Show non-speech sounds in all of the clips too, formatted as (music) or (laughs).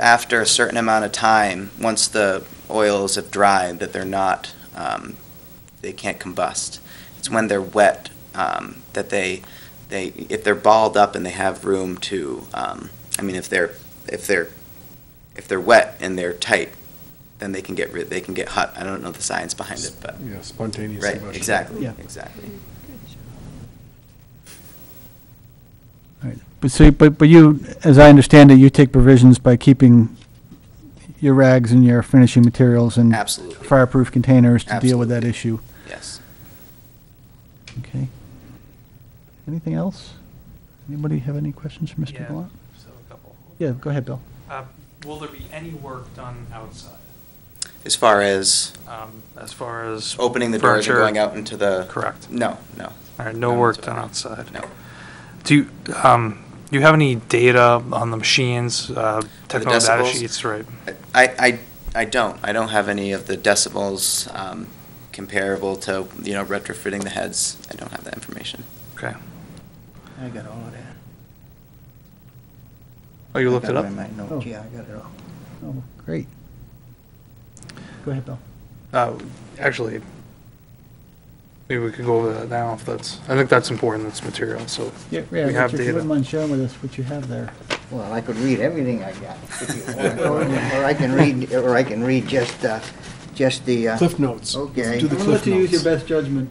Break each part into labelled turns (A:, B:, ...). A: after a certain amount of time, once the oils have dried, that they're not, um, they can't combust. It's when they're wet um, that they, they, if they're balled up and they have room to, um, I mean, if they're, if they're, if they're wet and they're tight, then they can get rid, they can get hot. I don't know the science behind it, but,
B: Yeah, spontaneous
A: right,
B: combustion.
A: exactly,
C: Yeah.
A: exactly.
C: Right. But so, but, but you, as I understand it, you take provisions by keeping your rags and your finishing materials in
A: Absolutely,
C: fireproof containers to deal with that
A: Absolutely.
C: issue.
A: yes.
C: Okay. Anything else? Anybody have any questions for Mr.
D: Yeah,
C: Gallant?
D: So a couple.
C: Yeah, go ahead, Bill.
D: Uh, Will there be any work done outside,
A: As far as
D: um, as far as?
A: opening the doors and
D: furniture?
A: going out into the.
D: Correct.
A: No, no,
D: All right, no
A: No,
D: work
A: it's
D: done
A: okay.
D: outside.
A: no.
D: Do you, um, do you have any data on the machines, uh, technical data
A: decibels?
D: sheets, right?
A: I, I, I don't. I don't have any of the decibels um, comparable to, you know, retrofitting the heads. I don't have that information.
D: Okay.
E: I got all of that.
D: Oh, you
E: I
D: looked
E: got
D: it up?
E: in my notes.
C: Oh.
E: Yeah, I got it all.
C: Oh, great. Go ahead, Bill.
D: Uh, Actually, maybe we could go over that now if that's, I think that's important, that's material, so.
C: Yeah,
D: We
C: Richard, if
D: have
C: you
D: data.
C: wouldn't mind sharing with us what you have there.
E: Well, I could read everything I got. if you (laughs) want. Or I can read, or I can read just, uh, just the, uh,
B: Cliff notes.
E: Okay.
B: Do the cliff notes.
C: best judgment.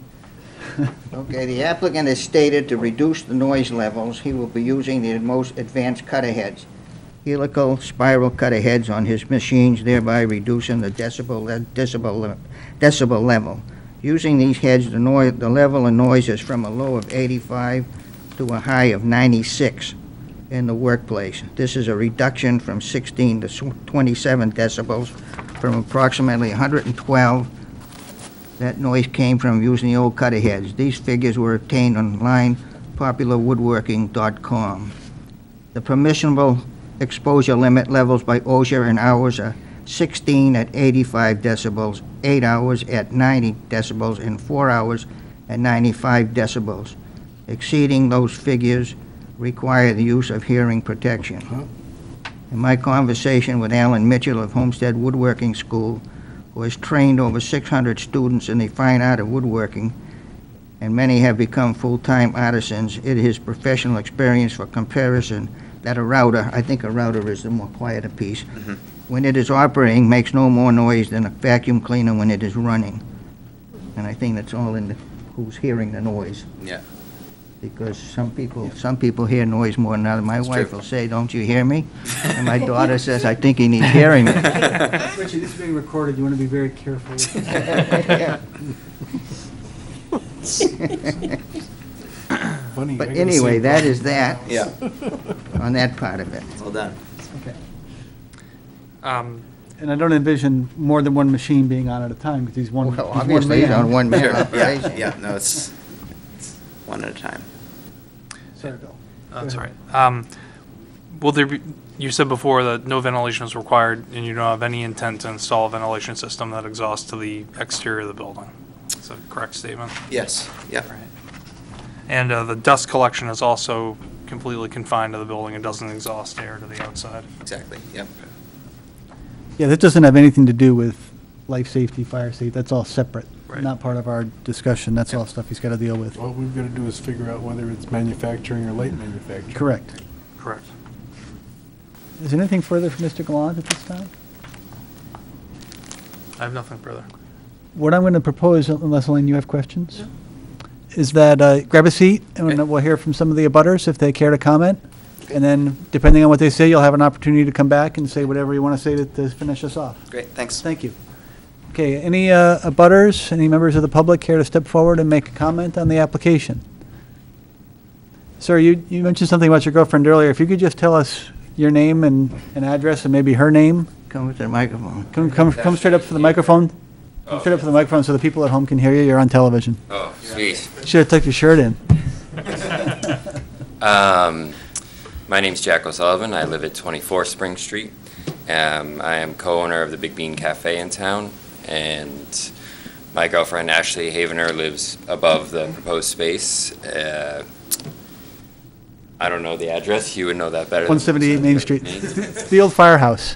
E: okay, the applicant has stated to reduce the noise levels, he will be using the most advanced cutter heads. Helical spiral cutter heads on his machines, thereby reducing the decibel, decibel, le- decibel level. Using these heads, the noise, the level of noise is from a low of 85 to a high of 96 in the workplace. This is a reduction from 16 to sw- 27 decibels from approximately 112. That noise came from using the old cutter heads. These figures were obtained online popularwoodworking.com. The permissible exposure limit levels by OSHA and hours are 16 at 85 decibels, 8 hours at 90 decibels, and 4 hours at 95 decibels. Exceeding those figures require the use of hearing protection. In my conversation with Alan Mitchell of Homestead Woodworking School, who has trained over 600 students in the fine art of woodworking, and many have become full-time artisans, it is professional experience for comparison that a router, I think a router is the more quieter piece,
A: Mhm.
E: when it is operating, makes no more noise than a vacuum cleaner when it is running. And I think that's all in the, who's hearing the noise
A: (laughs) Yeah.
E: because some people, some people hear noise more than others. My
A: It's
E: wife
A: true.
E: will say, "Don't you hear me?"
A: (laughs)
E: And my daughter says, "I think he needs hearing."
C: Richard, this is being recorded, you want to be very (laughs) careful.
B: Funny,
E: But
B: I got the same
E: anyway, that
B: problem.
E: is that
A: Yeah,
E: on that part of it.
A: well done.
D: Um,
C: And I don't envision more than one machine being on at a time, because he's one, he's
E: Well,
C: one
E: obviously, it's on
C: man.
E: one
A: Sure.
E: man
C: (laughs)
A: Yeah,
E: operation.
A: yeah, no, it's, it's one at a time.
C: Sorry, Bill.
D: That's right. Um, Will there be, you said before that no ventilation is required, and you don't have any intent to install a ventilation system that exhausts to the exterior of the building. Is that a correct statement?
A: Yes, yeah.
D: And uh, the dust collection is also completely confined to the building and doesn't exhaust air to the outside.
A: exactly, yep.
C: Yeah, that doesn't have anything to do with life safety, fire safety, that's all separate.
D: Right.
C: Not part of our discussion, that's all stuff he's got to deal
B: (laughs)
C: with.
B: All we've got to do is figure out whether it's manufacturing or light manufacturing.
C: Correct.
D: Correct.
C: Is there anything further from Mr. Gallant at this time?
D: I have nothing further.
C: What I'm going to propose, unless Elaine, you have questions? Is that, uh, grab a seat, and
A: Okay.
C: then we'll hear from some of the abutters if they care to comment. And then, depending on what they say, you'll have an opportunity to come back and say whatever you want to say to- to finish us off.
A: Great, thanks.
C: Thank you. Okay, any uh, abutters, any members of the public care to step forward and make a comment on the application? Sir, you, you mentioned something about your girlfriend earlier. If you could just tell us your name and, and address and maybe her name?
E: Come with the microphone.
C: Come, come, come straight up for the microphone. Come straight up for the microphone so the people at home can hear you. You're on television.
F: Oh, sweet.
C: Should have tucked your shirt in.
B: (laughs)
F: Um, my name's Jack O'Sullivan. I live at 24 Spring Street. Um, I am co-owner of the Big Bean Cafe in town, and my girlfriend Ashley Havener lives above the proposed space. Uh, I don't know the address. You would know that better. than
C: 178 Main Street. (laughs)
F: (laughs) Main
C: It's the old firehouse.